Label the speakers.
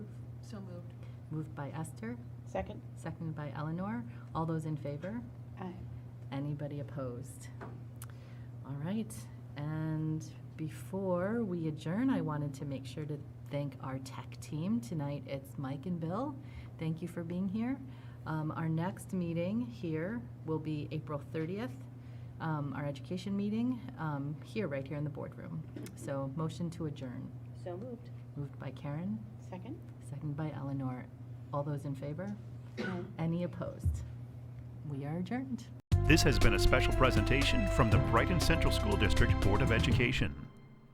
Speaker 1: So moved.
Speaker 2: Moved by Esther,
Speaker 3: Second?
Speaker 2: seconded by Eleanor. All those in favor?
Speaker 3: Aye.
Speaker 2: Anybody opposed? All right, and before we adjourn, I wanted to make sure to thank our tech team. Tonight, it's Mike and Bill. Thank you for being here. Um, Our next meeting here will be April 30th, um, our education meeting, um, here, right here in the boardroom. So motion to adjourn,
Speaker 3: So moved.
Speaker 2: moved by Karen,
Speaker 3: Second?
Speaker 2: seconded by Eleanor. All those in favor?
Speaker 3: Aye.
Speaker 2: Any opposed? We are adjourned.
Speaker 4: This has been a special presentation from the Brighton Central School District Board of Education.